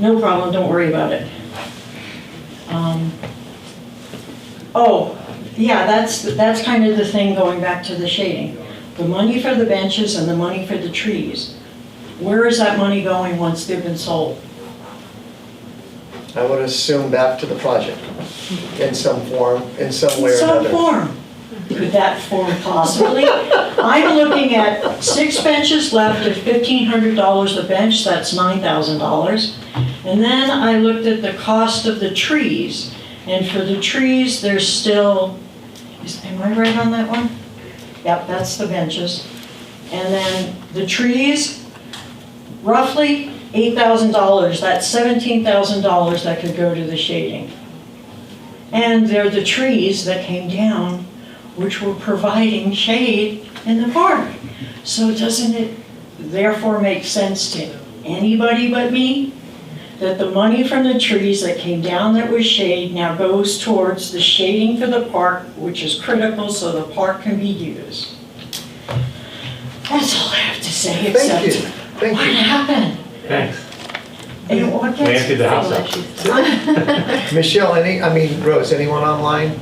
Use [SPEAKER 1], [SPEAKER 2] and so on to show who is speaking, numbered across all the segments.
[SPEAKER 1] No problem, don't worry about it. Um, Oh, yeah, that's, that's kind of the thing going back to the shading. The money for the benches and the money for the trees, where is that money going once they've been sold?
[SPEAKER 2] I would assume back to the project in some form, in some way or
[SPEAKER 1] Some
[SPEAKER 2] another.
[SPEAKER 1] form, could that form possibly? I'm looking at six benches left at fifteen hundred dollars a bench, that's nine thousand dollars. And then I looked at the cost of the trees, and for the trees, there's still, is- am I right on that one? Yep, that's the benches. And then the trees, roughly eight thousand dollars, that's seventeen thousand dollars that could go to the shading. And they're the trees that came down, which were providing shade in the park. So doesn't it therefore make sense to anybody but me that the money from the trees that came down that was shade now goes towards the shading for the park, which is critical so the park can be used? That's all I have to say,
[SPEAKER 2] Thank you,
[SPEAKER 1] except, what
[SPEAKER 2] thank you.
[SPEAKER 1] happened?
[SPEAKER 3] Thanks.
[SPEAKER 1] And what
[SPEAKER 3] We
[SPEAKER 1] gets-
[SPEAKER 3] emptied the house out.
[SPEAKER 2] Michelle, any, I mean, Rose, anyone online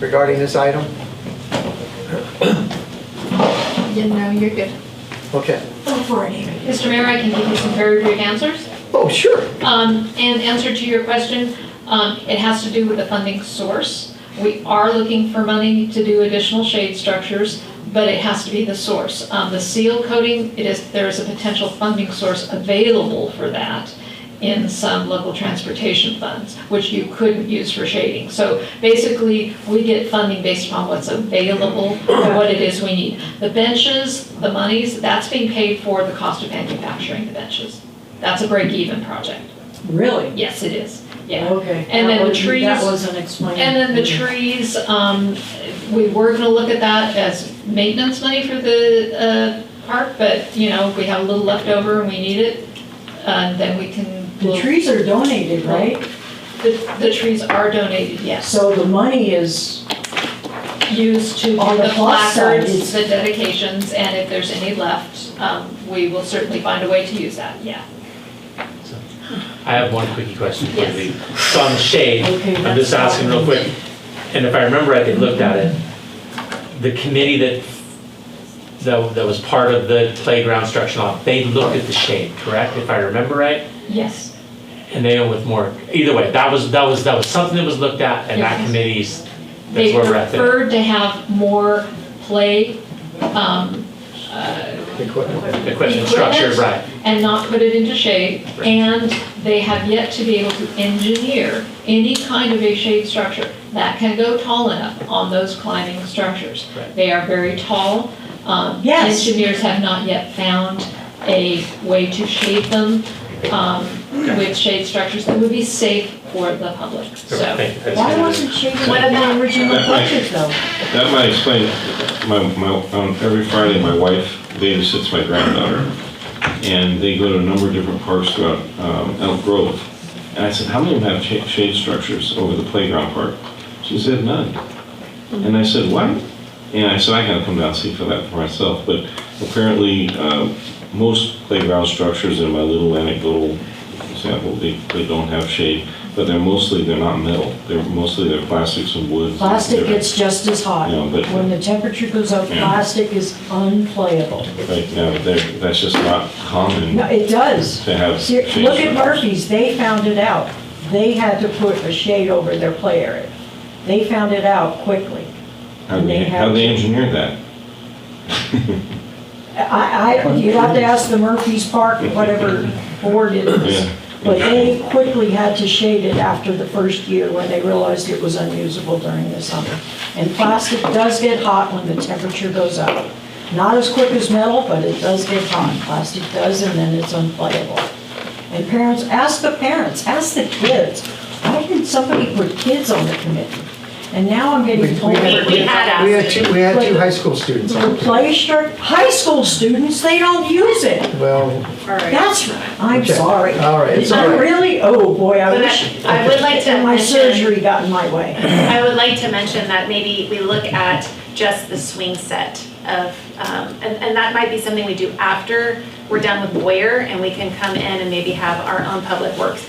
[SPEAKER 2] regarding this item?
[SPEAKER 4] Yeah, no, you're good.
[SPEAKER 2] Okay.
[SPEAKER 1] Go for it, Amy.
[SPEAKER 4] Mr. Mayor, I can give you some very brief answers.
[SPEAKER 2] Oh, sure.
[SPEAKER 4] Um, and answer to your question, um, it has to do with the funding source. We are looking for money to do additional shade structures, but it has to be the source. Um, the seal coating, it is, there is a potential funding source available for that in some local transportation funds, which you couldn't use for shading. So basically, we get funding based upon what's available or what it is we need. The benches, the monies, that's being paid for the cost of manufacturing the benches. That's a break-even project.
[SPEAKER 1] Really?
[SPEAKER 4] Yes, it is, yeah.
[SPEAKER 1] Okay.
[SPEAKER 4] And then
[SPEAKER 1] that
[SPEAKER 4] the
[SPEAKER 1] was- That
[SPEAKER 4] trees-
[SPEAKER 1] wasn't explained.
[SPEAKER 4] And then the trees, um, we were gonna look at that as maintenance money for the, uh, park, but, you know, if we have a little left over and we need it, uh, then we can.
[SPEAKER 1] The trees are donated, right?
[SPEAKER 4] The, the trees are donated, yes,
[SPEAKER 1] So the money is,
[SPEAKER 4] used to
[SPEAKER 1] On
[SPEAKER 4] do
[SPEAKER 1] the
[SPEAKER 4] the
[SPEAKER 1] plus side,
[SPEAKER 4] placards,
[SPEAKER 1] it's-
[SPEAKER 4] the dedications, and if there's any left, um, we will certainly find a way to use that, yeah.
[SPEAKER 3] I have one quickie question for
[SPEAKER 4] Yes.
[SPEAKER 3] you. So on the shade,
[SPEAKER 1] Okay,
[SPEAKER 3] I'm just
[SPEAKER 1] that's
[SPEAKER 3] asking real quick, and if I remember right, they looked at it. The committee that, that, that was part of the playground structure, law, they looked at the shade, correct? If I remember right?
[SPEAKER 4] Yes,
[SPEAKER 3] And they went with more, either way, that was, that was, that was something that was looked at and that
[SPEAKER 4] Yes.
[SPEAKER 3] committee's, that's
[SPEAKER 4] they
[SPEAKER 3] where we're at there.
[SPEAKER 4] preferred to have more play, um, uh,
[SPEAKER 2] Equipment.
[SPEAKER 3] Equipment structure,
[SPEAKER 4] equipment.
[SPEAKER 3] right.
[SPEAKER 4] and not put it into shade,
[SPEAKER 3] Right.
[SPEAKER 4] and they have yet to be able to engineer any kind of a shade structure that can go tall enough on those climbing structures.
[SPEAKER 3] Right.
[SPEAKER 4] They are very tall. Um,
[SPEAKER 1] Yes.
[SPEAKER 4] Engineers have not yet found a way to shade them um, with shade structures that would be safe for the public, so.
[SPEAKER 3] Thank you. I just
[SPEAKER 1] why
[SPEAKER 3] needed-
[SPEAKER 1] wasn't shaded one of the original budget though?
[SPEAKER 5] That might explain, it. my, my, on every Friday, my wife babysits my granddaughter, and they go to a number of different parks throughout um, Elk Grove. And I said, how many of them have cha- shade structures over the playground park? She said, none. And I said, what? And I said, I gotta come down and see for that for myself, but apparently, um, most playground structures, in my little anecdotal example, they, they don't have shade, but they're mostly, they're not metal, they're mostly, they're plastics and woods. and
[SPEAKER 1] Plastic
[SPEAKER 5] different-
[SPEAKER 1] gets just as hot.
[SPEAKER 5] Yeah, but-
[SPEAKER 1] When the temperature goes up,
[SPEAKER 5] Yeah.
[SPEAKER 1] plastic is unplayable.
[SPEAKER 5] Right, now, there- that's just not common
[SPEAKER 1] No, it does.
[SPEAKER 5] to have.
[SPEAKER 1] See, Look at
[SPEAKER 5] shade
[SPEAKER 1] Murphy's, they found it out. They had to put a shade over their play area. They found it out quickly.
[SPEAKER 5] structure. How they,
[SPEAKER 1] they
[SPEAKER 5] how
[SPEAKER 1] have-
[SPEAKER 5] they engineer that?
[SPEAKER 1] I, I, you'd have to ask the Murphy's Park, whatever board it is.
[SPEAKER 5] Yeah.
[SPEAKER 1] But they quickly had to shade it after the first year when they realized it was unusable during the summer. And plastic does get hot when the temperature goes up. Not as quick as metal, but it does get hot. Plastic does, and then it's unplayable. And parents, ask the parents, ask the kids. Why didn't somebody put kids on the committee? And now I'm
[SPEAKER 2] We-
[SPEAKER 1] getting
[SPEAKER 2] we
[SPEAKER 1] told.
[SPEAKER 2] had-
[SPEAKER 1] we're-
[SPEAKER 2] We had two, we had two high school students
[SPEAKER 1] The
[SPEAKER 2] on.
[SPEAKER 1] play stru- high school students, they don't use it.
[SPEAKER 2] Well,
[SPEAKER 1] That's right. I'm
[SPEAKER 2] Okay.
[SPEAKER 1] sorry.
[SPEAKER 2] All right, it's all
[SPEAKER 1] I
[SPEAKER 2] right.
[SPEAKER 1] really, oh boy, I
[SPEAKER 6] But
[SPEAKER 1] wish.
[SPEAKER 6] I- I would like to
[SPEAKER 1] My
[SPEAKER 6] mention-
[SPEAKER 1] surgery got in my way.
[SPEAKER 6] I would like to mention that maybe we look at just the swing set of, um, and, and that might be something we do after we're done with Boyer, and we can come in and maybe have our own public works